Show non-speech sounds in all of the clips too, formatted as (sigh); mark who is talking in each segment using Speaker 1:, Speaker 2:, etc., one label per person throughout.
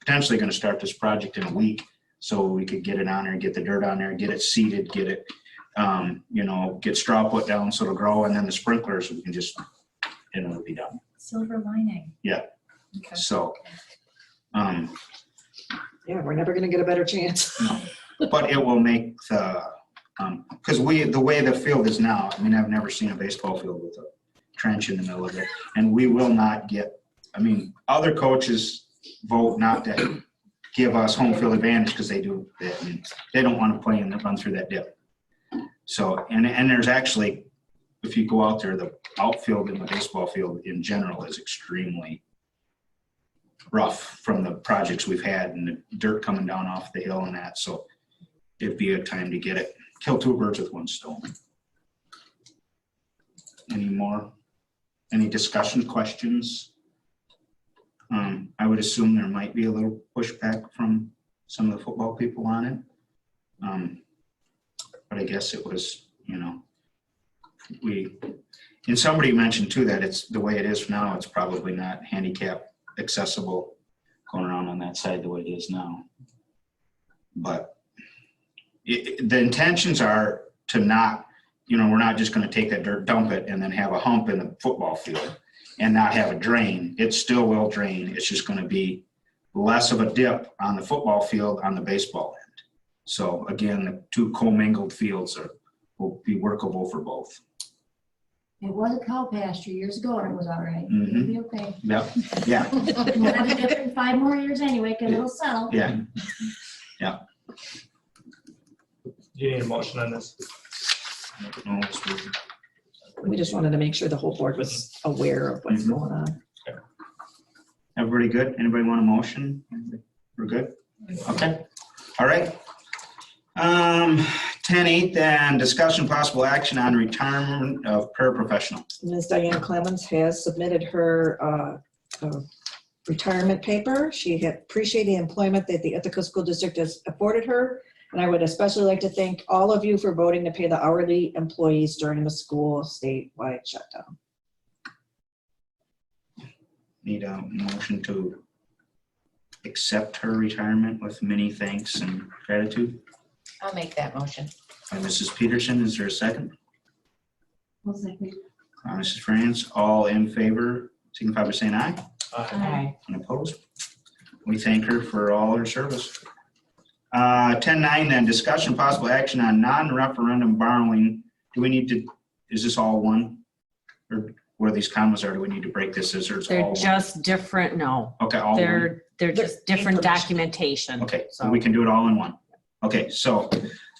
Speaker 1: potentially gonna start this project in a week. So we could get it on there, get the dirt on there, get it seeded, get it, um, you know, get straw put down so it'll grow and then the sprinklers, we can just, and it'll be done.
Speaker 2: Silver lining.
Speaker 1: Yeah.
Speaker 2: Okay.
Speaker 1: So, um,
Speaker 3: Yeah, we're never gonna get a better chance. (laughs)
Speaker 1: but it will make the, um, cause we, the way the field is now, I mean, I've never seen a baseball field with a trench in the middle of it. And we will not get, I mean, other coaches vote not to give us home field advantage because they do, they, I mean, they don't want to play and run through that dip. So, and, and there's actually, if you go out there, the outfield in the baseball field in general is extremely rough from the projects we've had and the dirt coming down off the hill and that, so it'd be a time to get it, kill two birds with one stone. Any more? Any discussion, questions? Um, I would assume there might be a little pushback from some of the football people on it. Um, But I guess it was, you know, we, and somebody mentioned too that it's, the way it is now, it's probably not handicap accessible going around on that side the way it is now. But it, it- the intentions are to not you know, we're not just gonna take that dirt, dump it, and then have a hump in the football field and not have a drain. It still will drain. It's just gonna be less of a dip on the football field on the baseball end. So again, the two commingled fields are, will be workable for both.
Speaker 4: It was a cow pasture years ago and it was all right. It'll
Speaker 1: Mhm.
Speaker 4: be okay.
Speaker 1: Yep, yeah,
Speaker 4: We'll have a different five more years anyway, because it'll settle.
Speaker 1: yeah.
Speaker 5: Do you need a motion on this?
Speaker 1: No, it's weird.
Speaker 3: We just wanted to make sure the whole board was aware of what's
Speaker 1: Mhm.
Speaker 3: going on.
Speaker 1: Everybody good? Anybody want a motion? We're good? Okay, all right. Um, ten eight, then discussion possible action on retirement of paraprofessional.
Speaker 3: Ms. Diane Clemmons has submitted her uh, uh, retirement paper. She had appreciated the employment that the Ithaca School District has afforded her. And I would especially like to thank all of you for voting to pay the hourly employees during the school statewide shutdown.
Speaker 1: Need a motion to accept her retirement with many thanks and gratitude
Speaker 2: I'll make that motion.
Speaker 1: by Mrs. Peterson. Is there a second?
Speaker 4: We'll see.
Speaker 1: Uh, Mrs. France, all in favor, signify by saying aye.
Speaker 2: Aye.
Speaker 1: And opposed? We thank her for all her service. Uh, ten nine then, discussion possible action on non-referendum borrowing. Do we need to, is this all one? Or where these commas are, do we need to break this? Is there's all
Speaker 6: They're
Speaker 1: one?
Speaker 6: just different, no,
Speaker 1: Okay, all one.
Speaker 6: they're, they're just different documentation.
Speaker 1: Oh. Okay, so
Speaker 6: So-
Speaker 1: we can do it all in one. Okay, so,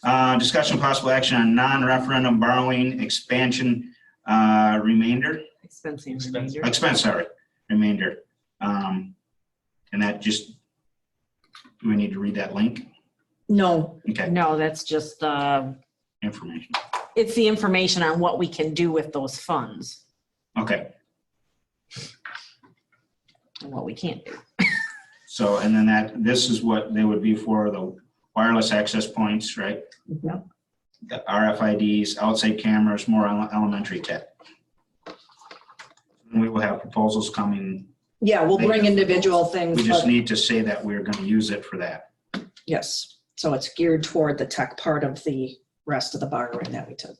Speaker 1: uh, discussion possible action on non-referendum borrowing expansion, uh, remainder,
Speaker 6: Expensing
Speaker 5: Expensive.
Speaker 6: remainder.
Speaker 1: expense, sorry, remainder. Um, and that just, do we need to read that link?
Speaker 3: No,
Speaker 1: Okay,
Speaker 6: No, that's just, uh,
Speaker 1: information.
Speaker 6: it's the information on what we can do with those funds
Speaker 1: Okay,
Speaker 6: and what we can't do.
Speaker 1: so, and then that, this is what they would be for the wireless access points, right?
Speaker 3: Yep.
Speaker 1: The RFIDs, outside cameras, more ele- elementary tech. And We will have proposals coming
Speaker 3: yeah, we'll bring individual things.
Speaker 1: We just
Speaker 3: but-
Speaker 1: need to say that we're gonna use it for that.
Speaker 3: Yes, so it's geared toward the tech part of the rest of the borrowing that we took.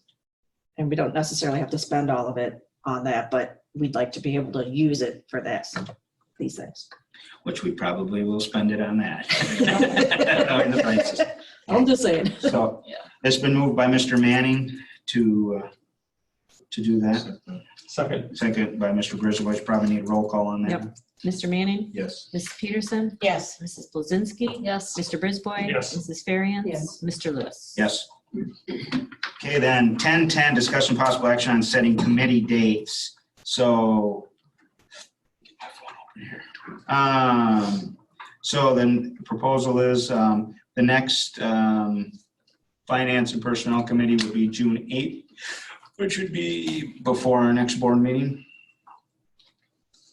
Speaker 3: And we don't necessarily have to spend all of it on that, but we'd like to be able to use it for this, these things.
Speaker 1: Which we probably will spend it on that. (laughs) In
Speaker 3: (laughs)
Speaker 1: the prices.
Speaker 3: I'm just saying.
Speaker 1: So it's been moved by Mr. Manning to, uh, to do that.
Speaker 5: Second.
Speaker 1: Second by Mr. Griswold, probably need roll call on that.
Speaker 6: Mr. Manning,
Speaker 5: Yes.
Speaker 6: Mrs. Peterson,
Speaker 2: Yes.
Speaker 6: Mrs. Blazinski,
Speaker 4: Yes.
Speaker 6: Mr. Brisboy.
Speaker 5: Yes.
Speaker 6: Mrs. Ferriant.
Speaker 3: Yes.
Speaker 6: Mr. Lewis.
Speaker 1: Yes. Okay, then, ten ten, discussion possible action on setting committee dates, so. I have one over here. Um, so then the proposal is, um, the next, um, Finance and Personnel Committee would be June eighth, which would be before our next board meeting.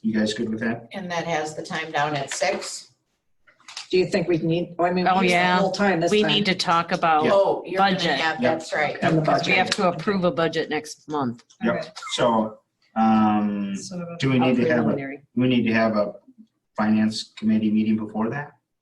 Speaker 1: You guys good with that?
Speaker 2: And that has the time down at six?
Speaker 3: Do you think we need, oh, I mean.
Speaker 6: Oh,
Speaker 3: we used the
Speaker 6: yeah.
Speaker 3: Whole time this
Speaker 6: We
Speaker 3: time.
Speaker 6: need to talk about,
Speaker 2: Oh, you're gonna
Speaker 6: Budget.
Speaker 2: have,
Speaker 1: Yeah.
Speaker 2: that's right.
Speaker 3: On the
Speaker 6: because we
Speaker 3: budget.
Speaker 6: have to approve a budget next month.
Speaker 1: So, um, do we need to have a
Speaker 6: Preliminary.
Speaker 1: We need to have a finance committee meeting before that?